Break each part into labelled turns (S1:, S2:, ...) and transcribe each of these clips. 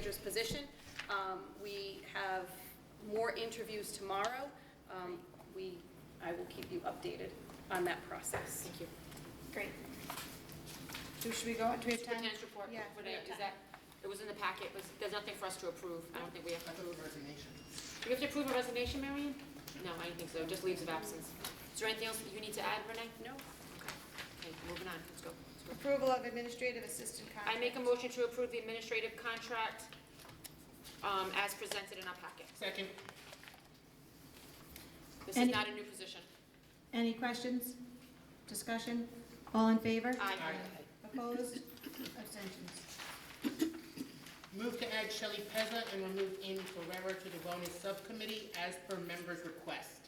S1: manager's position. Um, We have more interviews tomorrow. Um, We, I will keep you updated on that process.
S2: Thank you.
S3: Great. So should we go, do we have time?
S2: Superintendent's report,
S3: Yeah.
S2: what is that, it was in the packet, It was- there's nothing for us to approve, I don't think we have to approve.
S4: resignation.
S2: Do we have to approve a resignation, Marion? No, I don't think so, just leaves of absence. Is there anything else you need to add, Renee?
S1: No?
S2: Okay, Okay, moving on, let's go. Let's go.
S3: Approval of administrative assistant contract.
S2: I make a motion to approve the administrative contract um, as presented in our packet.
S4: Second.
S2: This is
S5: Any-
S2: not a new position.
S5: Any questions? Discussion? All in favor?
S2: Uh, Aye.
S5: Opposed? Abstentions?
S4: Move to add Shelley Pezza and remove Amy Ferrera to the Wellness Subcommittee as per members' request.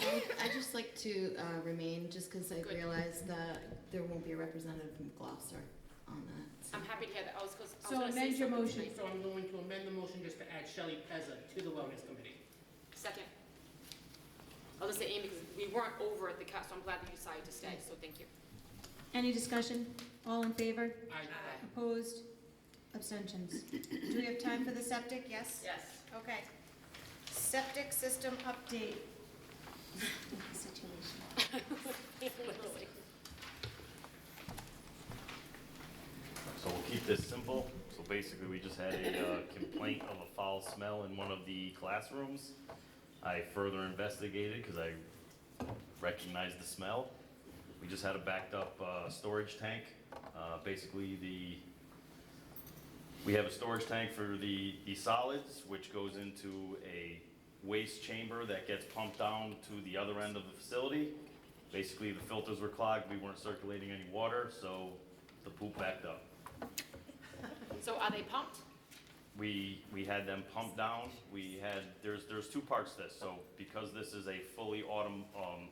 S6: I'd just like to uh, remain, just because I
S2: Good.
S6: realize that there won't be a representative from Gloucester on that.
S2: I'm happy to hear that, I was, 'cause I was
S5: So
S2: gonna say
S5: amend your
S2: something
S5: motion.
S2: tonight.
S4: So I'm going to amend the motion just to add Shelley Pezza to the Wellness Committee.
S2: Second. I'll just say Amy, because we weren't over at the cut, so I'm glad that you decided to stay, so thank you.
S5: Any discussion? All in favor?
S4: Aye.
S5: Opposed? Abstentions?
S3: Do we have time for the septic? Yes?
S2: Yes.
S3: Okay. Septic system update. Situation.
S2: Literally.
S7: So we'll keep this simple. So basically, we just had a uh, complaint of a foul smell in one of the classrooms. I further investigated because I recognized the smell. We just had a backed up uh, storage tank. Uh, Basically, the, we have a storage tank for the, the solids, which goes into a waste chamber that gets pumped down to the other end of the facility. Basically, the filters were clogged, we weren't circulating any water, so the poop backed up.
S2: So are they pumped?
S7: We, we had them pumped down, we had, there's, there's two parts to this, so because this is a fully autom, um,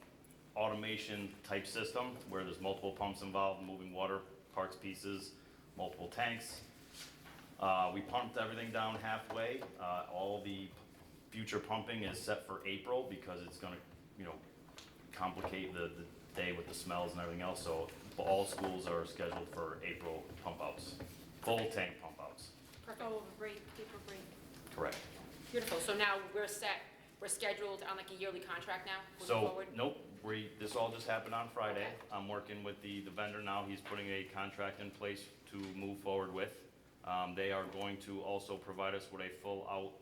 S7: automation type system, where there's multiple pumps involved, moving water, parts, pieces, multiple tanks, uh, we pumped everything down halfway, uh, all the p- future pumping is set for April, because it's gonna, you know, complicate the, the day with the smells and everything else, so all schools are scheduled for April pump outs, full tank pump outs.
S2: Perfect.
S3: Oh, break, paper break.
S7: Correct.
S2: Beautiful, so now we're set, we're scheduled on like a yearly contract now, moving
S7: So,
S2: forward?
S7: nope, we, this all just happened on Friday.
S2: Okay.
S7: I'm working with the, the vendor now, he's putting a contract in place to move forward with. Um, they are going to also provide us with a full out,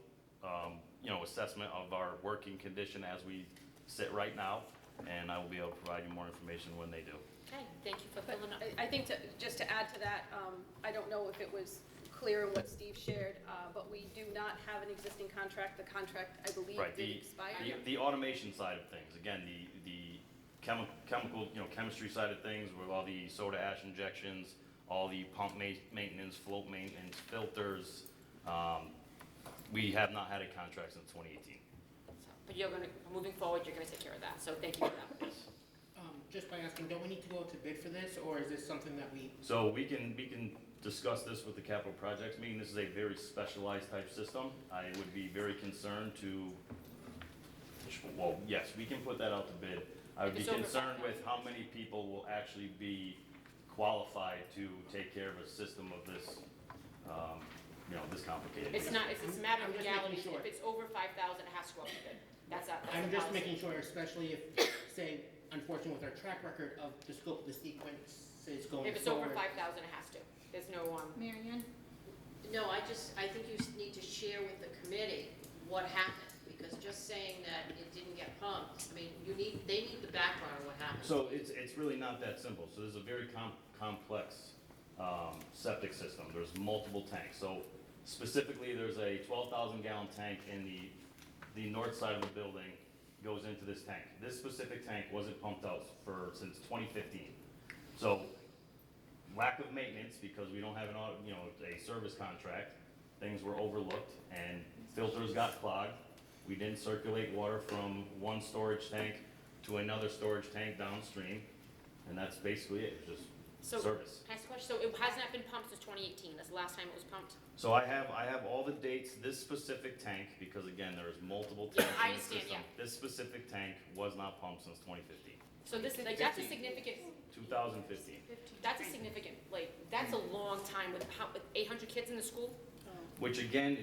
S7: um, you know, assessment of our working condition as we sit right now, and I will be able to provide you more information when they do.
S2: Okay, thank you for
S1: But
S2: filling up.
S4: uh,
S1: I I think, to- just to add to that, um, I don't know if it was clear in what Steve shared, uh, but we do not have an existing contract. The contract, I believe,
S7: Right,
S1: did
S7: the, the,
S1: expire.
S7: the automation side of things, again, the, the chemi- chemical, you know, chemistry side of things with all the soda ash injections, all the pump ma- maintenance, float maintenance, filters, um, we have not had a contract since twenty eighteen.
S2: So- But you're gonna, moving forward, you're gonna take care of that, so thank you for that.
S4: Um, Just by asking, don't we need to go to bid for this, or is this something that we,
S7: So we can, we can discuss this with the capital projects meeting, this is a very specialized type system. I would be very concerned to, well, yes, we can put that out to bid. I would
S2: If
S7: be
S2: it's over
S7: concerned
S2: five
S7: with how many people will actually be qualified to take care of a system of this, um, you know, this complicated.
S2: It's not, it's it's a matter
S4: I'm
S2: of
S4: just making
S2: legality,
S4: sure.
S2: if it's over five thousand, it has to go up to bid. That's that, that's
S4: I'm
S2: the
S4: just
S2: policy.
S4: making sure, especially if, say, unfortunately with our track record of the scope of the sequence is going forward.
S2: If it's over five thousand, it has to, there's no, um,
S5: Mary Ann?
S8: No, I just, I think you s- need to share with the committee what happened, because just saying that it didn't get pumped, I mean, you need, they need the background on what happened.
S7: So it's, it's really not that simple. So there's a very com- complex um, septic system. There's multiple tanks. So specifically, there's a 12,000 gallon tank in the, the north side of the building goes into this tank. This specific tank wasn't pumped out for, since 2015. So lack of maintenance, because we don't have an, auto- you know, a service contract, things were overlooked, and filters got clogged. We didn't circulate water from one storage tank to another storage tank downstream, and that's basically it, it was
S2: so.
S7: just service.
S2: Can I ask a question, so it has not been pumped since twenty eighteen, that's the last time it was pumped?
S7: So I have, I have all the dates, this specific tank, because again, there is multiple
S2: Yeah,
S7: tanks
S2: I
S7: in the
S2: understand,
S7: system.
S2: yeah.
S7: This specific tank was not pumped since 2015,
S2: So this, like, that's a
S4: 15.
S2: significant,
S7: 2015.
S2: that's a significant, like, that's a long time with how, with eight hundred kids in the school?
S7: which again